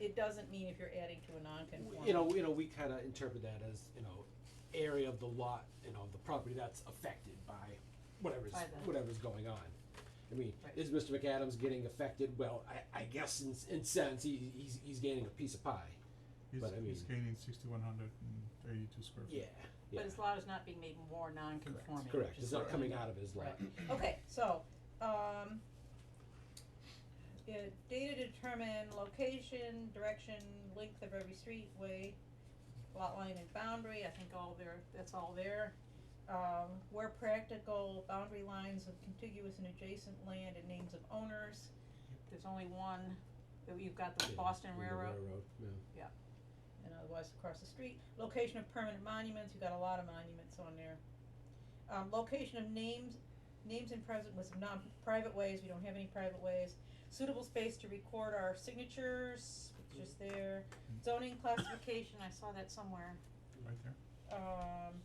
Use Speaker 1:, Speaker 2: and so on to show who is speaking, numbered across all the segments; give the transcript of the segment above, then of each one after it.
Speaker 1: it doesn't mean if you're adding to a non-conforming.
Speaker 2: you know, you know, we kinda interpret that as, you know, area of the lot, you know, the property that's affected by whatever's,
Speaker 1: By the-
Speaker 2: whatever's going on. I mean,
Speaker 1: Right.
Speaker 2: is Mr. McAdams getting affected? Well, I, I guess in, s- in sense, he, he's, he's gaining a piece of pie.
Speaker 3: He's,
Speaker 2: But I
Speaker 3: he's
Speaker 2: mean-
Speaker 3: gaining sixty-one hundred and eighty-two square feet.
Speaker 2: Yeah,
Speaker 1: But his lot is not being made more non-conforming.
Speaker 2: correct,
Speaker 1: which is
Speaker 2: it's not
Speaker 1: what-
Speaker 2: coming out of his lot.
Speaker 1: Okay, so, um, yeah, data to determine location, direction, length of every street, way, lot line and boundary, I think all there, that's all there. Um, where practical, boundary lines of contiguous and adjacent land and names of owners. There's only one, that you've got the
Speaker 2: Yeah,
Speaker 1: Boston
Speaker 2: in the
Speaker 1: Railroad
Speaker 2: Railroad, yeah.
Speaker 1: and otherwise across the street. Location of permanent monuments, you've got a lot of monuments on there. Um, location of names, names and present with non, private ways, we don't have any private ways. Suitable space to record our signatures, which is there. Zoning classification, I saw that somewhere,
Speaker 3: Right there.
Speaker 1: um.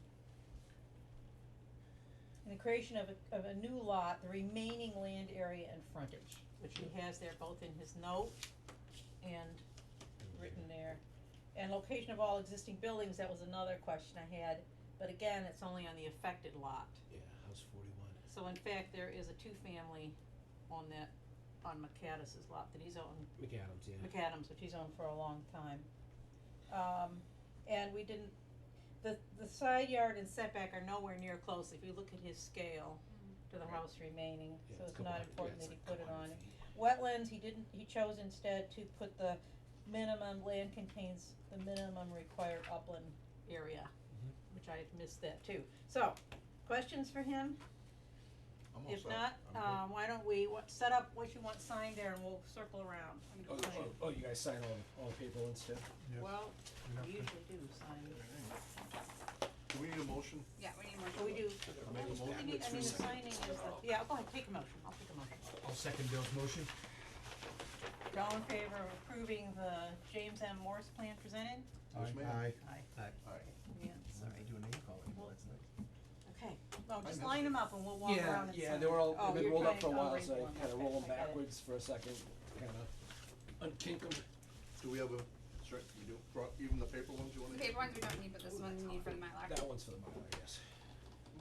Speaker 1: And the creation of a, of a new lot, the remaining land area and frontage, which he has there both in his note and written there. And location of all existing buildings, that was another question I had, but again, it's only on the affected lot.
Speaker 2: Yeah, House forty-one.
Speaker 1: So in fact, there is a two-family on that, on McCaddis's lot that he's owned,
Speaker 2: McAdams, yeah.
Speaker 1: McAdams, which he's owned for a long time. Um, and we didn't, the, the side yard and setback are nowhere near close, if you look at his scale to the
Speaker 2: Right.
Speaker 1: house remaining,
Speaker 2: Yeah,
Speaker 1: so it's
Speaker 2: couple
Speaker 1: not
Speaker 2: hundred- yeah,
Speaker 1: important
Speaker 2: it's
Speaker 1: that he
Speaker 2: like
Speaker 1: put it
Speaker 2: couple
Speaker 1: on
Speaker 2: hundred
Speaker 1: it.
Speaker 2: feet.
Speaker 1: Wetlands, he didn't, he chose instead to put the minimum, land contains the minimum required upland area, which I had missed that too. So, questions for him?
Speaker 4: I'm all
Speaker 1: If
Speaker 4: set.
Speaker 1: not,
Speaker 4: I'm good.
Speaker 1: um, why don't we, what, set up what you want signed there and we'll circle around. I'm
Speaker 2: Oh,
Speaker 1: just saying.
Speaker 2: oh, oh, you guys sign all, all the paper and stuff?
Speaker 3: Yes.
Speaker 1: Well,
Speaker 3: we have
Speaker 1: we
Speaker 3: to-
Speaker 1: usually do sign,
Speaker 4: Do we need a motion?
Speaker 5: Yeah, we need more.
Speaker 1: we do,
Speaker 4: I make a
Speaker 1: we
Speaker 4: motion?
Speaker 1: need, I mean, the signing is the, yeah, go ahead, take a motion, I'll take a motion.
Speaker 6: I'll second Bill's motion.
Speaker 1: All in favor of approving the James M. Morse plan presented?
Speaker 4: Yes, ma'am.
Speaker 6: Aye.
Speaker 1: Aye.
Speaker 4: All right.
Speaker 1: Yeah,
Speaker 6: Sorry,
Speaker 1: sorry.
Speaker 6: do a name call anymore, that's nice.
Speaker 1: Okay, well, just
Speaker 4: know.
Speaker 1: line them up and we'll walk around and sign.
Speaker 2: Yeah, yeah, they were all,
Speaker 1: Oh,
Speaker 2: they've been
Speaker 1: you're
Speaker 2: rolled up
Speaker 1: trying-
Speaker 2: for a
Speaker 1: oh,
Speaker 2: while,
Speaker 1: raise
Speaker 2: so
Speaker 1: one.
Speaker 2: I kinda
Speaker 1: Okay,
Speaker 2: roll them
Speaker 1: I got it.
Speaker 2: backwards for a second, kinda unkink them.
Speaker 4: Do we have a, sure, you do, brought even the paper ones you wanna?
Speaker 5: The paper ones we don't need, but this one we need for the Mylar.
Speaker 2: That one's for the Mylar, I guess.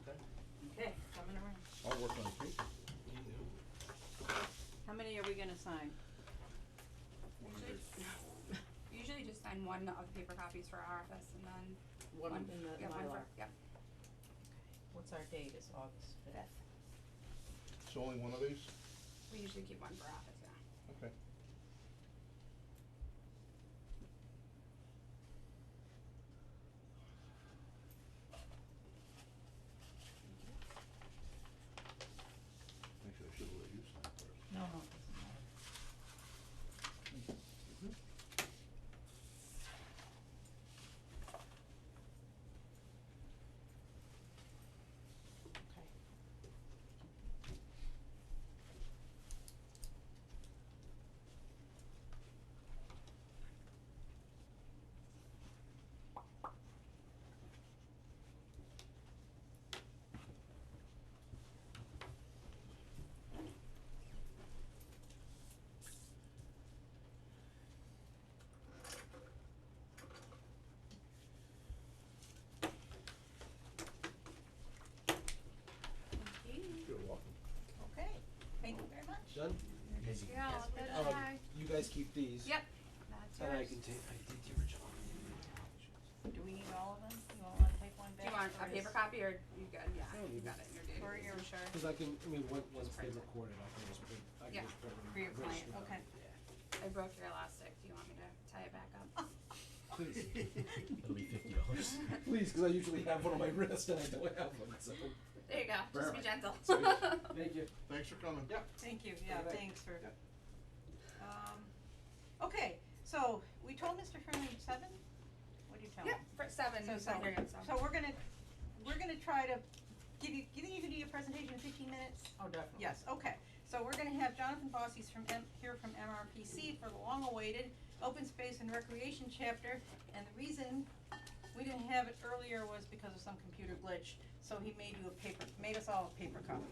Speaker 4: Okay.
Speaker 1: Okay, coming around.
Speaker 4: I'll work on the paper.
Speaker 1: How many are we gonna sign?
Speaker 4: One of
Speaker 5: Usually-
Speaker 4: these.
Speaker 5: Usually just sign one of the paper copies for our office and then
Speaker 1: One in
Speaker 5: yeah,
Speaker 1: the
Speaker 5: one
Speaker 1: Mylar.
Speaker 5: for, yeah.
Speaker 1: What's our date, it's August fifth.
Speaker 4: So only one of these?
Speaker 5: We usually keep one for office, yeah.
Speaker 4: Okay. Actually, I should've let you sign first.
Speaker 1: No, no, it doesn't matter. Okay.
Speaker 4: You're welcome.
Speaker 1: Okay, thank you very much.
Speaker 2: Done?
Speaker 6: Busy.
Speaker 5: Yeah,
Speaker 1: Yes,
Speaker 5: that's
Speaker 1: we
Speaker 2: Um,
Speaker 5: fine.
Speaker 2: you guys keep these.
Speaker 5: Yep, that's
Speaker 2: And I
Speaker 5: yours.
Speaker 2: can take, I did the original.
Speaker 1: Do we need all of them? You want, wanna take one
Speaker 5: Do
Speaker 1: back?
Speaker 5: you want
Speaker 1: or
Speaker 5: a
Speaker 1: is-
Speaker 5: paper copy or you good, yeah,
Speaker 2: No,
Speaker 5: you
Speaker 2: you
Speaker 5: got
Speaker 2: can-
Speaker 5: it, you're good.
Speaker 1: For your-
Speaker 5: sure.
Speaker 2: Cause I can, I mean, once, once they
Speaker 5: print it.
Speaker 2: record it, I can just print, I
Speaker 5: Yeah.
Speaker 2: can just print
Speaker 1: For your
Speaker 2: register
Speaker 1: client,
Speaker 2: them.
Speaker 1: okay.
Speaker 5: I broke your elastic, do you want me to tie it back up?
Speaker 2: Please,
Speaker 6: It'll be fifty dollars.
Speaker 2: please, cause I usually have one on my wrist and I don't have one, so.
Speaker 5: There you go, just be
Speaker 2: Perfect.
Speaker 5: gentle.
Speaker 2: Thank you.
Speaker 4: Thanks for coming.
Speaker 2: Yep.
Speaker 1: Thank you, yeah,
Speaker 2: Okay.
Speaker 1: thanks for.
Speaker 2: Yeah.
Speaker 1: Um, okay, so we told Mr. Freeman seven? What do you tell him?
Speaker 5: Yep, for seven,
Speaker 1: So,
Speaker 5: so
Speaker 1: so,
Speaker 5: here, so.
Speaker 1: so we're gonna, we're gonna try to give you, you think you can do your presentation in fifteen minutes?
Speaker 7: Oh, definitely.
Speaker 1: Yes, okay, so we're gonna have Jonathan Bossy's from M, here from MRPC for the long-awaited open space and recreation chapter. And the reason we didn't have it earlier was because of some computer glitch, so he made you a paper, made us all a paper copy.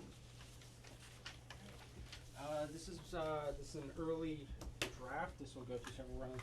Speaker 7: Uh, this is, uh, this is an early draft, this will go through several rounds